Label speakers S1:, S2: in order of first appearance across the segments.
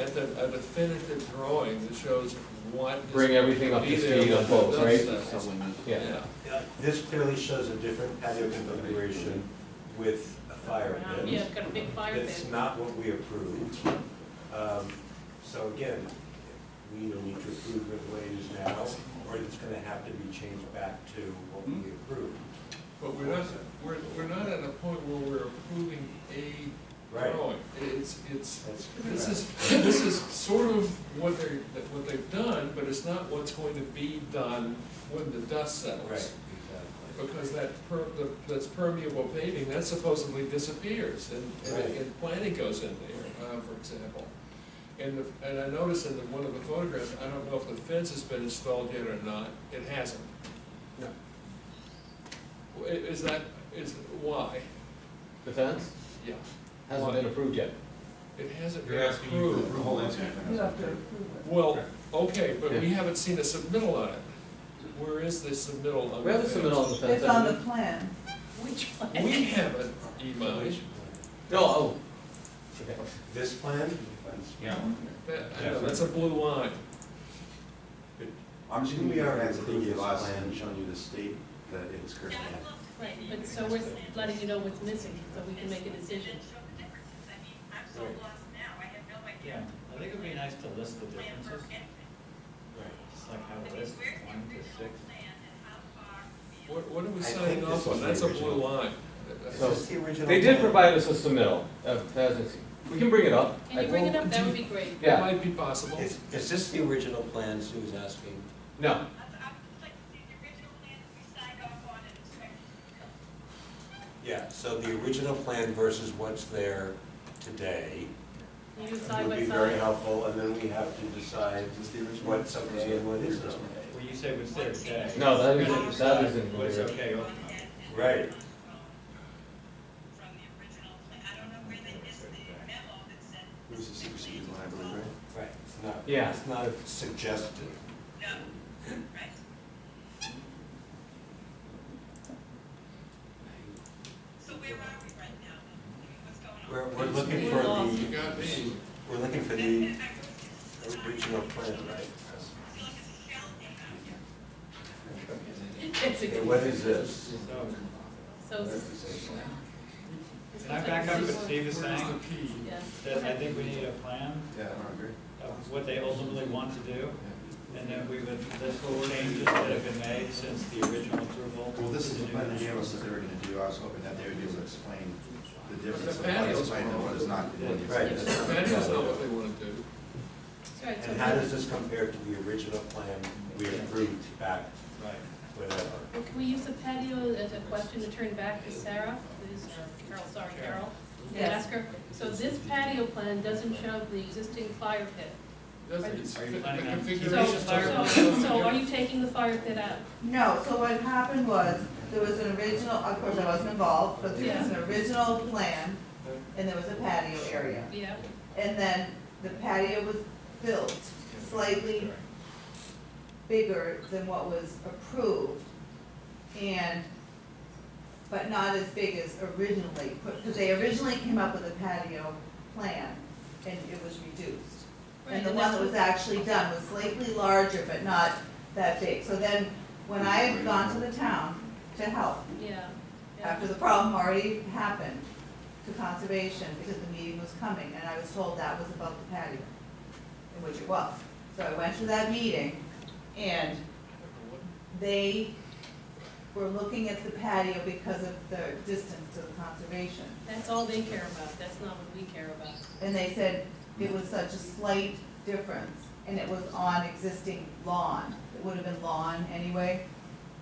S1: At the, at the finished drawing that shows what. is-
S2: Bring everything up to
S1: be there
S2: speed on
S1: when it
S2: both,
S1: does
S2: right?
S1: that.
S2: Yeah,
S1: Yeah,
S3: Uh, This clearly shows a different patio configuration with a fire
S4: Yeah,
S3: pit.
S4: it's got a big fire
S3: That's
S4: pit.
S3: not what we approved. Um, So again, we either need to approve it the way it is now, or it's gonna have to be changed back to what
S2: Hmm?
S3: we approved.
S1: but we're not, we're, we're not at a point where we're approving a
S3: Right.
S1: drawing. It's, it's,
S3: That's
S1: this
S3: correct.
S1: is, this is sort of what they're, that- what they've done, but it's not what's going to be done when the dust
S3: Right,
S1: settles.
S3: exactly.
S1: Because that per, the, that's permeable paving, that supposedly disappears, and, and,
S3: Right.
S1: and planning goes in there, uh, for example. And the, and I noticed in the, one of the photographs, I don't know if the fence has been installed yet or not, it hasn't.
S3: No.
S1: I- Is that, is, why?
S2: the fence
S1: Yeah,
S2: hasn't been approved yet.
S1: it hasn't
S5: You're
S1: been
S5: asking for
S1: approved.
S5: approval.
S6: You have to approve it.
S1: Well, okay, but we
S2: Yeah.
S1: haven't seen a submittal on it. Where is the submittal on the
S2: We have a
S1: fence?
S2: submittal on the fence.
S6: It's on the plan.
S4: Which
S1: We
S4: one?
S1: haven't, Imai.
S2: No, oh. Okay.
S3: This plan?
S5: Yeah.
S1: That, I know, that's a blue line.
S7: I'm just gonna
S3: We
S7: be
S3: are
S7: our as
S3: approving
S7: the
S3: this
S7: last
S3: plan.
S7: plan showing you the state that it is currently in.
S4: Right, but so we're letting you know what's missing, so we can make a decision.
S8: I'm so lost now, I have no idea.
S9: Yeah, I think it'd be nice to list the
S8: Plan for
S9: differences,
S8: anything.
S9: just like
S8: I
S9: how
S8: mean,
S9: it is,
S8: where's the
S9: one to
S8: original
S9: six.
S8: plan and how far beyond-
S1: What, what are we
S3: I
S1: signing
S3: think this
S1: off on?
S3: was the
S1: That's a
S3: original.
S1: blue line.
S3: Is
S2: So,
S3: this the original?
S2: They did
S3: plan?
S2: provide us with submittal, uh, hasn't, we can bring it up.
S4: Can
S2: I
S4: you bring it
S2: won't-
S4: up? That would be great.
S1: That
S2: Yeah,
S1: might be possible.
S3: Is, is this the original plan Sue's asking?
S2: no,
S8: I'd- I would just like to see the original plan that we signed off on and inspected.
S3: Yeah, so the original plan versus what's there today.
S4: You decide
S3: would be
S4: what's
S3: very
S4: on.
S3: helpful, and then we have to decide
S7: Is this the original?
S3: what's okay and what isn't okay.
S9: Well, you say what's there today.
S2: no, that
S9: We're gonna
S2: isn't, that
S9: decide
S2: isn't. really
S9: What's
S2: right.
S9: okay,
S8: One
S9: what's not.
S8: and- and
S3: Right.
S8: From the original plan, I don't know where they missed the memo that said.
S7: It was a superseded one, I believe, right?
S3: Right, it's not,
S2: Yeah.
S3: it's not suggested.
S8: No, right. So where are we right now? What's going on?
S3: We're, we're looking for
S4: lost.
S1: You got
S3: the,
S1: me.
S3: we're looking for the original plan, right?
S4: It's a
S3: Okay,
S4: good
S3: what
S4: one.
S3: is this?
S9: So,
S4: So. it's-
S9: Can I back up what Steve is
S1: Where's the
S9: saying?
S1: P?
S4: Yeah.
S9: That I think we need a plan
S7: Yeah, I agree.
S9: of what they ultimately want to do, and then we would list the changes that have been made since the original approval.
S7: Well, this is
S9: to
S7: the
S9: do
S7: plan they
S9: this.
S7: gave us that they were gonna do, I was hoping that they would be able to explain the difference
S1: The
S7: of what
S1: patios
S7: is planned and what is not. in the-
S3: Right.
S4: It's
S1: The Manuals know what they want to do.
S4: All right, so
S3: And how
S4: we-
S3: does this compare to the original plan we approved back,
S9: Right.
S3: whatever?
S4: Well, Can we use the patio as a question to turn back to Sarah, who's, Carol, sorry, Carol? And
S6: Yes.
S4: ask her, so this patio plan doesn't show the existing fire pit.
S1: Doesn't- it's-
S9: Are you
S1: the- the
S9: planning on-
S4: So,
S1: configuration
S9: Duration
S4: so,
S9: fire-
S1: doesn't-
S4: so are you taking the fire pit out?
S6: No, so what happened was, there was an original, of course, I wasn't involved, but there was an original plan, and there was a patio area.
S4: Yeah,
S6: And then the patio was built slightly bigger than what was approved, and, but not as big as originally, because they originally came up with a patio plan, and it was reduced.
S4: right,
S6: And the
S4: and
S6: one
S4: that's
S6: that was
S4: what,
S6: actually done was slightly larger, but not that big. So then, when I had gone to the town to help,
S4: yeah, yeah.
S6: after the problem already happened, to conservation, because the meeting was coming, and I was told that was about the patio, in which it was. So I went to that meeting, and they were looking at the patio because of the distance to the conservation.
S4: That's all they care about, that's not what we care about.
S6: And they said it was such a slight difference, and it was on existing lawn, it would have been lawn anyway,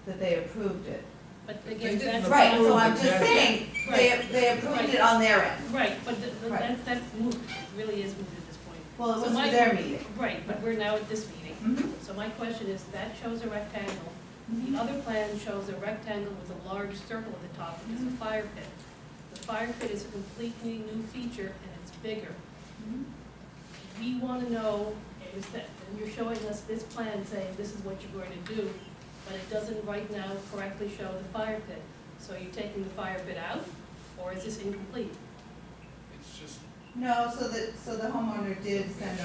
S6: that they approved it.
S4: But
S1: They
S4: again,
S1: didn't
S4: that's.
S6: Right, so I'm
S1: Approve
S6: just
S1: it,
S6: saying, they, they approved it on their end.
S4: Right, but the- the-
S6: Right.
S4: that's, that's moot, It really is moot at this point.
S6: Well, it
S4: So
S6: was
S4: my-
S6: their meeting. Mm-hmm.
S4: Right, but we're now at this meeting. So my question is, that shows a rectangle. The other plan shows a rectangle with a large circle at the top, which is a fire pit. The fire pit is a completely new feature and it's bigger.
S6: Mhm.
S4: We want to know, is that, and you're showing us this plan saying this is what you're going to do, but it doesn't right now correctly show the fire pit. So you're taking the fire pit out, or is this incomplete?
S1: It's just
S6: No, so the, so the homeowner did send